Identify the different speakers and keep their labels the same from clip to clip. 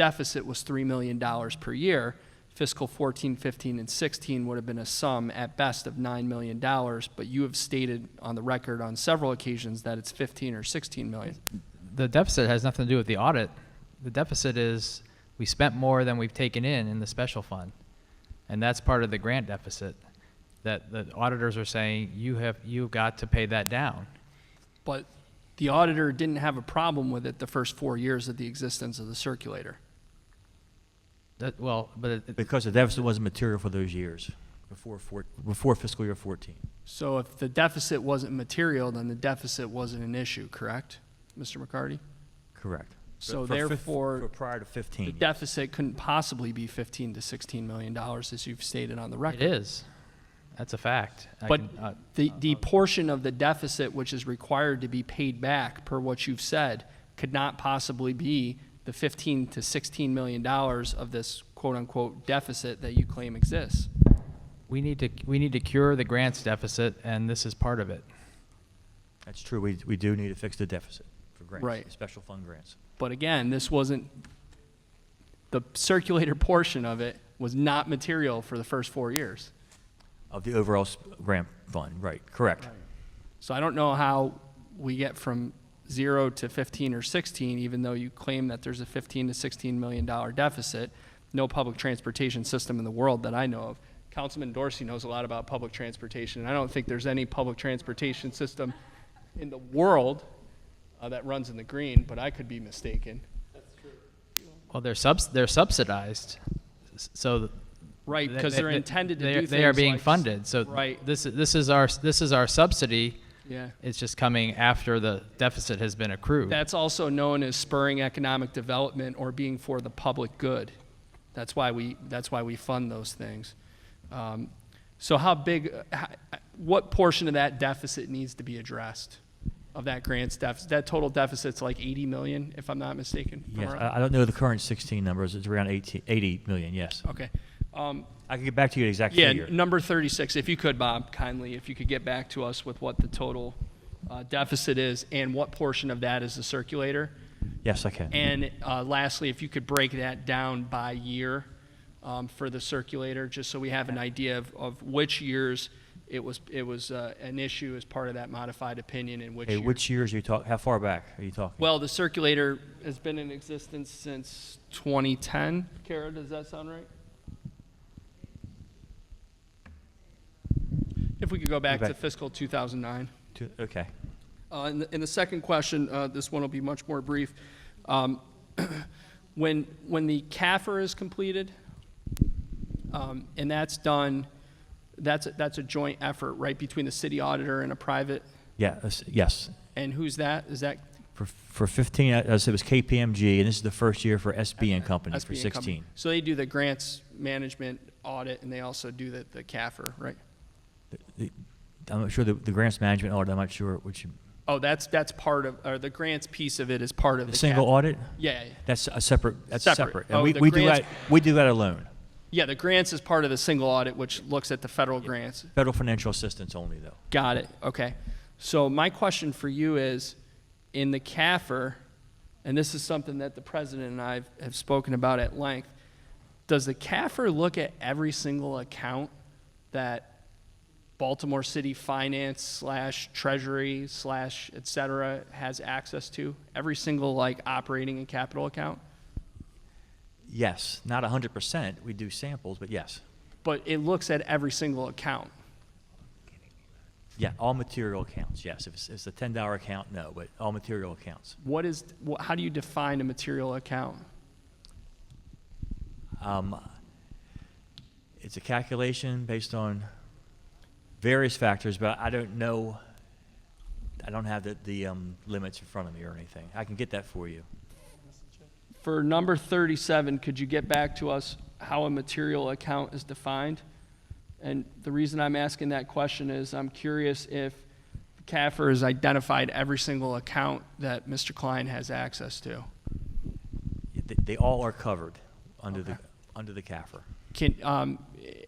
Speaker 1: deficit was $3 million per year. Fiscal 14, 15, and 16 would have been a sum at best of $9 million, but you have stated on the record on several occasions that it's 15 or 16 million.
Speaker 2: The deficit has nothing to do with the audit. The deficit is we spent more than we've taken in in the special fund. And that's part of the grant deficit that the auditors are saying, you have, you've got to pay that down.
Speaker 1: But the auditor didn't have a problem with it the first four years of the existence of the circulator.
Speaker 2: That, well, but it- it-
Speaker 3: Because the deficit wasn't material for those years, before four, before fiscal year fourteen.
Speaker 1: So if the deficit wasn't material, then the deficit wasn't an issue, correct, Mr. McCarty?
Speaker 3: Correct.
Speaker 1: So
Speaker 3: For- for fif-
Speaker 1: therefore-
Speaker 3: for Prior to
Speaker 1: The
Speaker 3: fifteen.
Speaker 1: deficit couldn't possibly be 15 to 16 million dollars, as you've stated on the record.
Speaker 2: it is. That's a fact. I
Speaker 1: But
Speaker 2: can- uh,
Speaker 1: the, the portion of the deficit which is required to be paid back, per what you've said, could not possibly be the 15 to 16 million dollars of this quote-unquote deficit that you claim exists.
Speaker 2: We need to, we need to cure the grants deficit and this is part of it.
Speaker 3: That's true. We, we do need to fix the deficit for grants.
Speaker 1: Right.
Speaker 3: Special fund grants.
Speaker 1: But again, this wasn't, the circulator portion of it was not material for the first four years.
Speaker 3: Of the overall s- grant fund, right, correct.
Speaker 1: So I don't know how we get from zero to 15 or 16, even though you claim that there's a 15 to 16 million dollar deficit. No public transportation system in the world that I know of. Councilman Dorsey knows a lot about public transportation, and I don't think there's any public transportation system in the world uh, that runs in the green, but I could be mistaken.
Speaker 2: Well, they're subs, they're subsidized, S- so. th-
Speaker 1: Right,
Speaker 2: they-
Speaker 1: 'cause
Speaker 2: they-
Speaker 1: they're
Speaker 2: they-
Speaker 1: intended to
Speaker 2: they-
Speaker 1: do
Speaker 2: They are
Speaker 1: things
Speaker 2: being
Speaker 1: like s-
Speaker 2: funded, so.
Speaker 1: right.
Speaker 2: This, is- this is our, this is our subsidy.
Speaker 1: Yeah.
Speaker 2: It's just coming after the deficit has been accrued.
Speaker 1: That's also known as spurring economic development or being for the public good. That's why we, that's why we fund those things. Um, So how big, uh, how- what portion of that deficit needs to be addressed? Of that grants deficit, that total deficit's like 80 million, if I'm not mistaken? from
Speaker 3: Yes,
Speaker 1: around-
Speaker 3: I, I don't know the current sixteen numbers. It's around 18 80 million, yes.
Speaker 1: Okay. Um,
Speaker 3: I can get back to you the exact
Speaker 1: Yeah,
Speaker 3: figure.
Speaker 1: n- number 36, if you could, Bob, kindly, if you could get back to us with what the total uh, deficit is and what portion of that is the circulator?
Speaker 3: Yes, I can.
Speaker 1: And uh, lastly, if you could break that down by year um, for the circulator, just so we have an idea of, of which years it was, it was uh, an issue as part of that modified opinion and which
Speaker 3: Okay,
Speaker 1: years.
Speaker 3: which years are you talk, how far back are you talking?
Speaker 1: Well, the circulator has been in existence since 2010. Kara, does that sound right? If we could go back to
Speaker 3: back.
Speaker 1: fiscal 2009.
Speaker 3: To- Okay.
Speaker 1: Uh, And the- and the second question, uh, this one will be much more brief. Um, When, when the CAFR is completed, um, and that's done, that's, a- that's a joint effort, right, between the city auditor and a private,
Speaker 3: Yeah, yes- yes.
Speaker 1: and who's that? Is that
Speaker 3: For, for fifteen, I- I said it was KPMG, and this is the first year for SB and Company for
Speaker 1: SB and Company?
Speaker 3: sixteen.
Speaker 1: So they do the grants management audit, and they also do the, the CAFR, right?
Speaker 3: The- I'm not sure the, the grants management audit, I'm not sure which,
Speaker 1: Oh, that's, that's part of, or the grants piece of it is part of
Speaker 3: the
Speaker 1: the
Speaker 3: single
Speaker 1: CAFR.
Speaker 3: audit?
Speaker 1: Yeah, yeah.
Speaker 3: That's a separate, that's
Speaker 1: Separate.
Speaker 3: separate. And
Speaker 1: Oh,
Speaker 3: we,
Speaker 1: the
Speaker 3: we do that,
Speaker 1: grants-
Speaker 3: we do that alone.
Speaker 1: yeah, the grants is part of the single audit, which looks at the federal grants.
Speaker 3: Federal financial assistance only, though.
Speaker 1: Got it. Okay. So my question for you is, in the CAFR, and this is something that the president and I have spoken about at length, does the CAFR look at every single account that Baltimore City Finance slash Treasury slash et cetera has access to? Every single like operating and capital account?
Speaker 3: Yes, not hundred percent. We do samples, but yes.
Speaker 1: But it looks at every single account.
Speaker 3: Yeah, all material accounts, yes. If it's, it's a ten dollar account, no, but all material accounts.
Speaker 1: What is, wh- how do you define a material account?
Speaker 3: Um, it's a calculation based on various factors, but I don't know, I don't have the, the, um, limits in front of me or anything. I can get that for you.
Speaker 1: For number 37, could you get back to us how a material account is defined? And the reason I'm asking that question is I'm curious if CAFR has identified every single account that Mr. Klein has access to.
Speaker 3: They, they all are covered under the, under the CAFR.
Speaker 1: Can, um,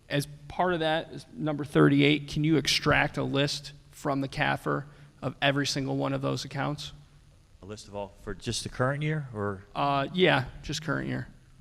Speaker 1: as part of that, is number 38, can you extract a list from the CAFR of every single one of those accounts?
Speaker 3: A list of all, for just the current year, or?
Speaker 1: Uh, yeah, just current year.